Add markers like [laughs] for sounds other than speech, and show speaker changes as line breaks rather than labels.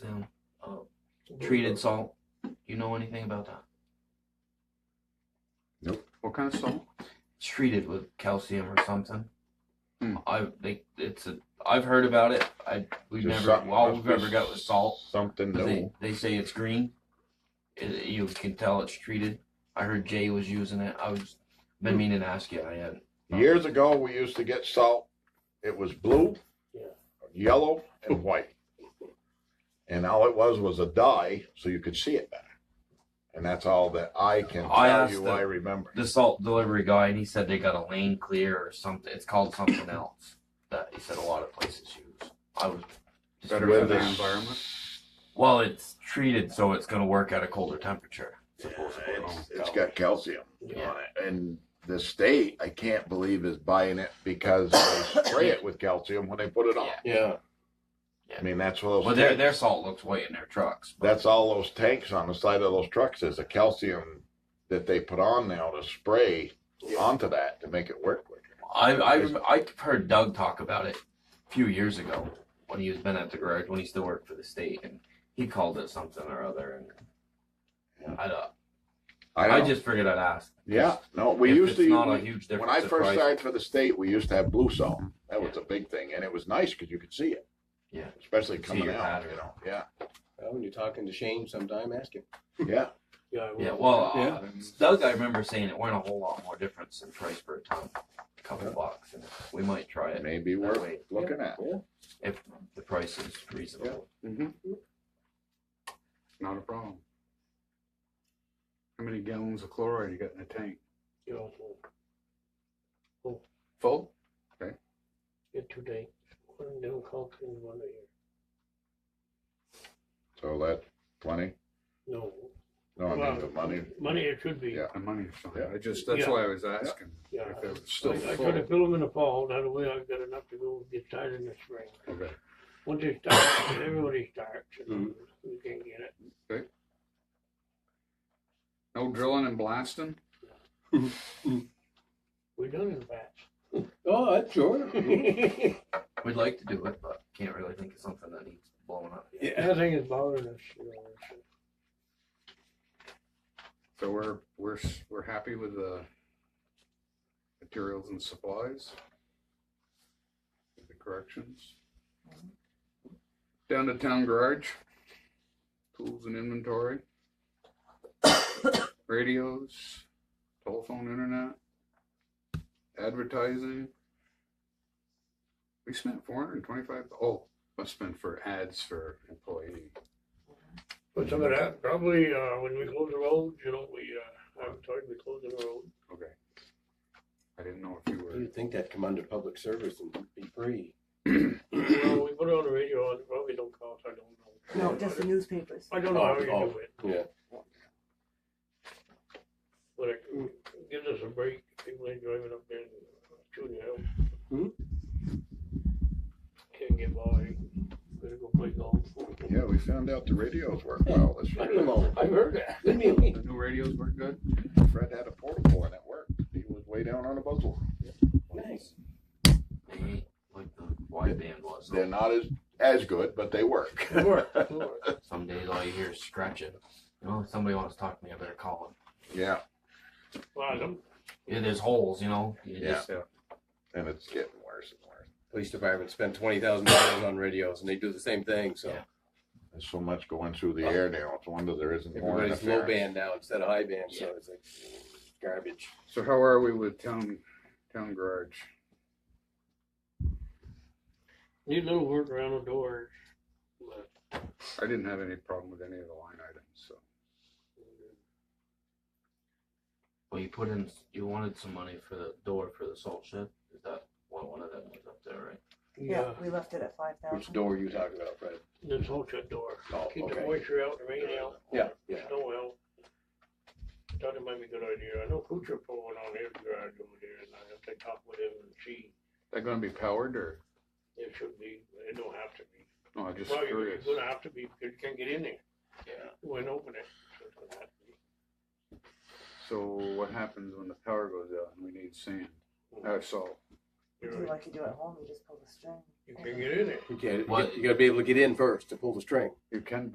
treated salt. Do you know anything about that?
What kind of salt?
It's treated with calcium or something.
Hmm.
I they it's a I've heard about it. I we've
Just
never
something
all
must
we've
be
ever got was salt.
Something
But They
new.
they say it's green. It- you can tell it's treated. I heard Jay was using it. I was
Hmm.
been meaning to ask you. I had
Years ago, we used to get salt. It was blue, yellow,
[laughs]
and white. And all it was was a dye, so you could see it better. And that's all that I can
I
tell
asked
you.
the-
I remember.
the salt delivery guy, and he said they got a lane clear or something. It's called something else that he said a lot of places use. I was just
Better
With
for the
this-
environment.
well, it's treated, so it's going to work at a colder temperature.
Yeah, it's- it's got calcium
Yeah.
on it, and the state I can't believe is buying it because they spray it with calcium when they put it on.
Yeah.
Yeah.
I mean, that's what those.
Well, their
tanks-
their salt looks white in their trucks. but-
That's all those tanks on the side of those trucks is the calcium that they put on now to spray onto that to make it work quicker.
I I rem- I heard Doug talk about it a few years ago when he was been at the garage when he still worked for the state and he called it something or other and I don't, I,
know.
just figured I'd ask.
yeah no we
If
used
it's
to
not a
we-
huge
when
difference.
I
in
first
price.
started for the state we used to have blue salt that was a big thing and it was nice because you could see it
Yeah.
especially
See
coming
your
out
pattern.
you know
[laughs]
yeah
Well, when you're talking to Shane sometime, ask him.
yeah
Yeah.
yeah, well,
Yeah.
uh, Doug, I remember saying it weren't a whole lot more difference in price per ton, a couple bucks, and we might try it
maybe
that
worth
way
looking at
if the price is reasonable.
Mm-hmm. Not a problem. How many gallons of chloride you got in the tank?
you know,
Full?
get two days, one down Concord and one here.
so that plenty
No,
no I
Well,
mean the money
money it should be.
Yeah.
The money's fine.
Yeah.
I just, that's
Yeah.
why I was asking.
Yeah.
If it was still
I, I try to
full.
fill them in the fall, that way I've got enough to go get started in the spring.
Okay.
Once they start, everybody starts and we can get it.
No drilling and blasting?
We done in [laughs] batch.
Oh, that's [laughs] sure.
We'd like to do it, but can't really think of something that needs blowing up. yet.
Yeah.
Nothing is bothering us, you know, so.
So we're, we're, s- we're happy with the materials and supplies? With The corrections? Down to town garage? Tools and inventory? [coughs] Radios? Telephone, internet? Advertising? We spent four hundred and twenty-five, oh, must spend for ads for employee.
But some of that, probably, uh, when we close the road, you know, we, uh, I'm sorry, we close the road.
Okay. I didn't know if you were.
You'd think that'd come under public service and be free.
Well, we put it on the radio, it probably don't cost, I don't know.
No, just the newspapers.
I don't know how you do it. Oh,
Yeah.
But it gives us a break, people ain't driving up there and shooting out.
Hmm?
Can't get by, better go play golf.
yeah we found out the radios work well this
I don't
year
know. I've heard that. Good meal.
The new radios were good.
Fred had a portable and it worked he was way down on a buzzle
Nice.
They ain't like the wideband was.
they're not as as good but they work
Good work, good work.
Some days all you hear is scratching. You know, if somebody wants to talk to me, I better call them.
[laughs] yeah
Well, I don't-
Yeah, there's holes, you know. You
Yeah.
just-
and it's getting worse and worse
Police department spent twenty thousand dollars on radios and they do the same thing, so
Yeah.
There's so much going through the air now. It's a wonder there isn't more
everybody's low
interference.
band now instead of high band, so it's like garbage.
So how are we with town, town garage?
need a little work around the doors. but
I didn't have any problem with any of the line items, so.
Well, you put in, you wanted some money for the door for the salt shed. Is that one, one of them was up there, right?
Yeah,
Yeah,
we left it at five
Which
thousand.
door are you talking about, Fred?
this whole shut door,
Oh,
keep the
okay.
moisture out, the rain out.
Yeah, yeah.
Snow out. Thought it might be a good idea. I know Kuchar put one on his garage over there and I have to talk with him and see.
That gonna be powered or,
It should be, it don't have to be.
no, I just
Well, you're, you're
curious.
gonna have to be, because you can't get in there.
Yeah.
You wouldn't open it. so it's gonna have to be.
So what happens when the power goes out and we need sand? Uh, salt.
You're
Do
right.
like you do at home, you just pull the string.
You can't get in there.
You can't, you
What?
gotta be able to get in first to pull the string.
You can